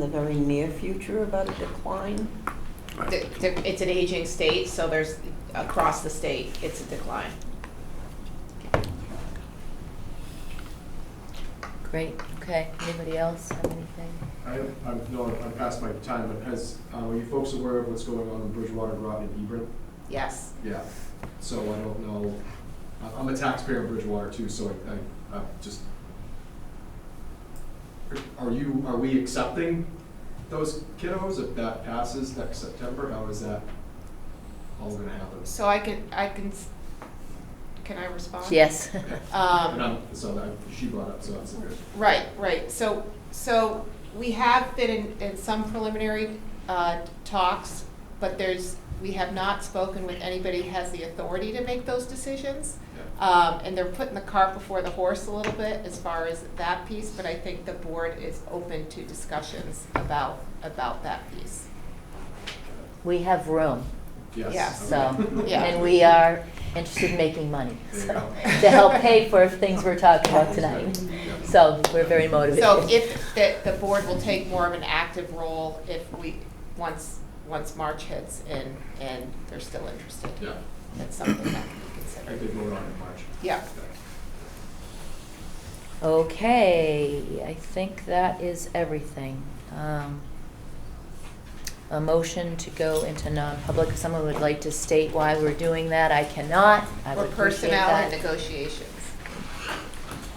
the very near future about a decline? Th- th- It's an aging state, so there's, across the state, it's a decline. Great, okay. Anybody else have anything? I, I'm, no, I'm past my time, but has, uh, are you folks aware of what's going on in Bridgewater, Groton, and Hebron? Yes. Yeah, so I don't know, I- I'm a taxpayer in Bridgewater too, so I, I, I just. Are you, are we accepting those kiddos if that passes next September, how is that all gonna happen? So I can, I can, s- can I respond? Yes. And Um, I'm, so that, she brought up, so that's good. right, right, so, so we have been in, in some preliminary, uh, talks, but there's, we have not spoken with anybody who has the authority to make those decisions. Yeah. Um, and they're putting the cart before the horse a little bit as far as that piece, but I think the board is open to discussions about, about that piece. We have room, Yes. Yes. so, okay. Yeah. and we are interested in making money, There you so, go. to help pay for things we're talking about tonight. Yeah. So, we're very motivated. So if, the, the board will take more of an active role if we, once, once March hits and, and they're still interested. Yeah, That's something that can be I considered. could vote on it in March. Yeah. Okay, I think that is everything. Um, A motion to go into non-public, if someone would like to state why we're doing that, I cannot, I For would appreciate personnel and that. negotiations.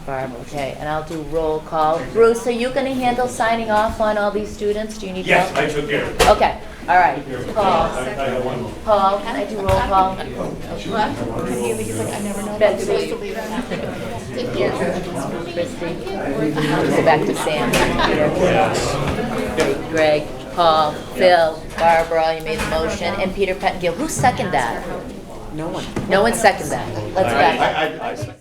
Barb, okay, and I'll do roll call. Bruce, are you gonna handle signing off on all these students? Do you need help? Yes, I took care of it. Okay, all right. Paul, I I got one more. Paul, can I do roll call? Betsy, Christie, go back to Sam. Peter, Greg, Paul, Phil, Barbara, you made the motion, and Peter Pettingill. Who seconded that? No one. No one seconded that. Let's I- back up. I- I- I-